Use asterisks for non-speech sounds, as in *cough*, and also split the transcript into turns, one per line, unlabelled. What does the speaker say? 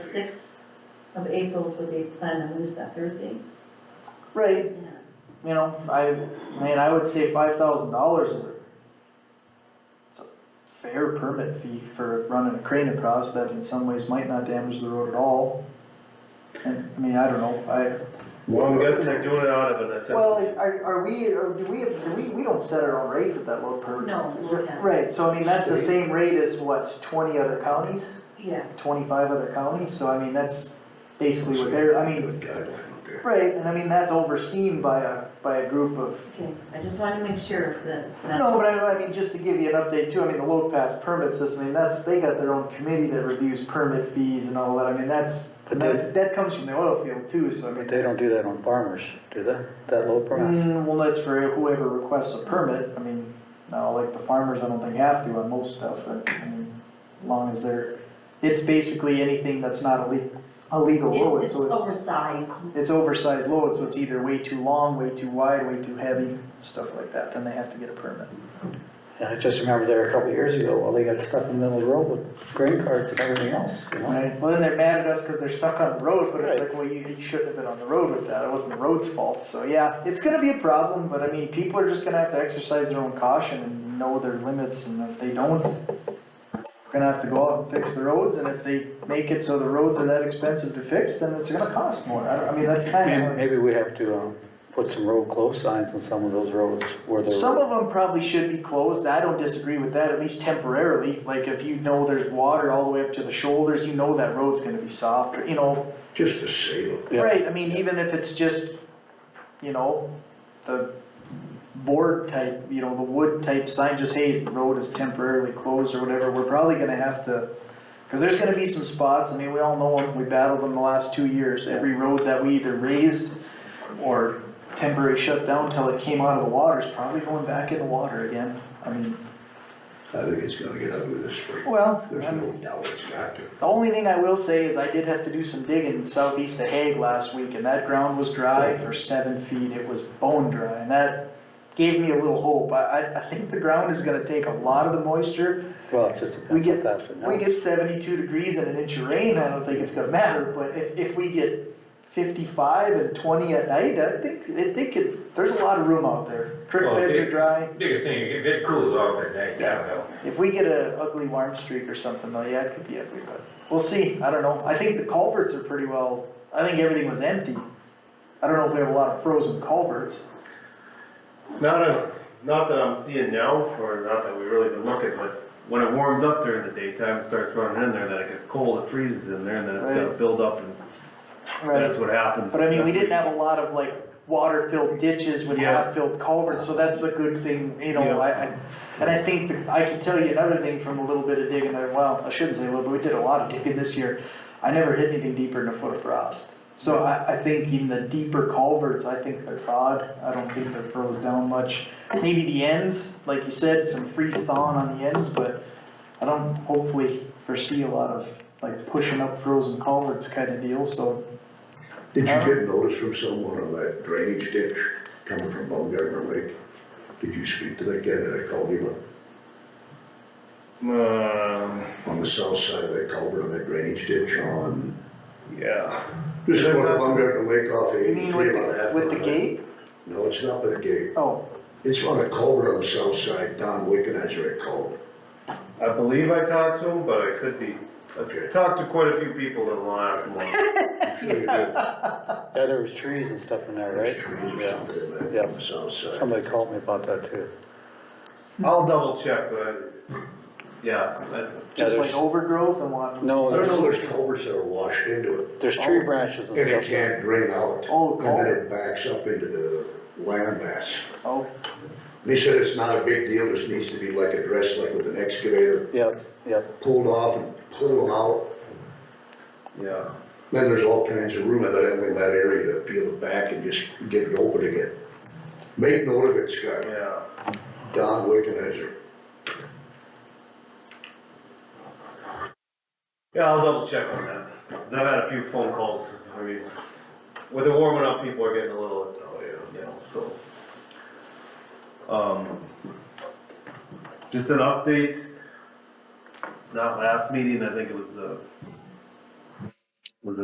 sixth of April is what they plan to lose that Thursday.
Right,
Yeah.
you know, I, man, I would say five thousand dollars is a, it's a fair permit fee for running a crane across that in some ways might not damage the road at all. And, I mean, I don't know, I,
Well, I'm guessing they're doing it out of a
Well,
necessity.
are, are we, or do we, do we, we don't set our own rates with that low per?
No, Lord has.
Right, so I mean, that's the same rate as what, twenty other counties,
Yeah,
twenty-five other counties, so I mean, that's basically what they're, I mean, right, and I mean, that's overseen by a, by a group of,
okay, I just wanted to make sure that. that-
no, but I, I mean, just to give you an update too, I mean, the load pass permit system, I mean, that's, they got their own committee that reviews permit fees and all that, I mean, that's,
But
and
they-
that's, that comes from the oil field too, so I mean.
But they don't do that on farmers, do they? That low price?
Mm, well, that's for whoever requests a permit, I mean, now, like the farmers, I don't think have to on most stuff, but, I mean, as long as they're, it's basically anything that's not a le- a legal load,
It's it's
so
oversized,
it's, it's oversized load, so it's either way too long, way too wide, way too heavy, stuff like that, then they have to get a permit.
And I just remember there a couple of years ago, well, they got stuck in the middle of the road with grain carts and everything else, you know?
Right, well, then they're mad at us because they're stuck on the road, but it's
Right.
like, well, you, you shouldn't have been on the road with that, it wasn't the road's fault, so yeah, it's gonna be a problem, but I mean, people are just gonna have to exercise their own caution and know their limits, and if they don't, we're gonna have to go out and fix the roads, and if they make it so the roads are that expensive to fix, then it's gonna cost more, I, don't- I mean, that's kind
Maybe,
of like.
maybe we have to, um, put some road close signs on some of those roads where they're.
Some of them probably should be closed, I don't disagree with that, at least temporarily, like if you know there's water all the way up to the shoulders, you know that road's gonna be soft, you know,
Just to save them.
Yeah.
Right, I mean, even if it's just, you know, the board type, you know, the wood type sign, just, hey, the road is temporarily closed or whatever, we're probably gonna have to, cause there's gonna be some spots, I mean, we all know them, we battled them the last two years, every road that we either raised or temporary shut down till it came out of the water is probably going back in the water again, I mean,
I think it's gonna get ugly this spring.
well,
There's
I'm-
no doubt it's got to.
The only thing I will say is I did have to do some digging southeast of Hague last week, and that ground was dry for seven feet, it was bone dry, and that gave me a little hope, I, I, I think the ground is gonna take a lot of the moisture.
Well, it just
We
depends how
get,
fast it
we
melts.
get seventy-two degrees and an inch of rain, I don't think it's gonna matter, but if, if we get fifty-five and twenty at night, I think, I think it, there's a lot of room out there. Creek
Well,
beds
it-
are dry,
Biggest thing, if it cools off at night, that'll help.
If we get a ugly warm streak or something though, yeah, it could be ugly, but we'll see, I don't know, I think the culverts are pretty well, I think everything was empty. I don't know if we have a lot of frozen culverts,
Not a, not that I'm seeing now, or not that we really been looking, but when it warms up during the daytime, it starts running in there, then it gets cold, it freezes in there, and then it's gonna
Right.
build up, and
right,
that's what happens.
but I mean, we
That's
didn't
what-
have a lot of like water filled ditches with
Yeah.
half filled culverts, so that's a good thing, you
Yeah.
know, I, I. And I think, that- I can tell you another thing from a little bit of digging, I- well, I shouldn't say a little, but we did a lot of digging this year, I never hit anything deeper than a foot of frost. So I, I think in the deeper culverts, I think they're thawed, I don't think they're froze down much. Maybe the ends, like you said, some freeze thawing on the ends, but I don't hopefully foresee a lot of like pushing up frozen culverts kind of deal, so.
Did you
Uh.
get notice from someone on that drainage ditch coming from Baumgartner Lake? Did you speak to that guy that I called you on,
Um,
on the south side of that culvert on that drainage ditch on,
yeah.
just going to Baumgartner Lake off
You mean
eighty-three
with
about
the,
half.
with the
mile.
gate?
No, it's not by the gate.
Oh,
It's on a culvert on the south side, Don Wickenizer at
*laughs*
culvert.
I believe I talked to him, but I could be, I
Okay.
talked to quite a few people in the
*laughs*
last month.
I'm sure you did.
Yeah, there was trees and stuff in there, right?
There's trees or
Yeah.
something in that
Yeah.
on the south side.
Somebody called me about that too.
I'll double check, but I, yeah, I-
just like
there's-
overgrowth and what?
No,
I don't know,
there's,
there's culverts that are washed into it,
there's tree branches and
and it
stuff.
can't drain out.
Oh,
And then it backs up into the land mass.
Oh,
They said it's not a big deal, just needs to be like addressed, like with an excavator,
Yep, yep.
pulled off and pull them out.
yeah.
Then there's all kinds of room evidently in that area to peel it back and just get it open again. Make note of it, Scott,
Yeah,
Don Wickenizer.
yeah, I'll double check on that, 'cause I've had a few phone calls, I mean, with it warming up, people are getting a little,
Oh, yeah.
you know, so. Um, just an update, not last meeting, I think it was the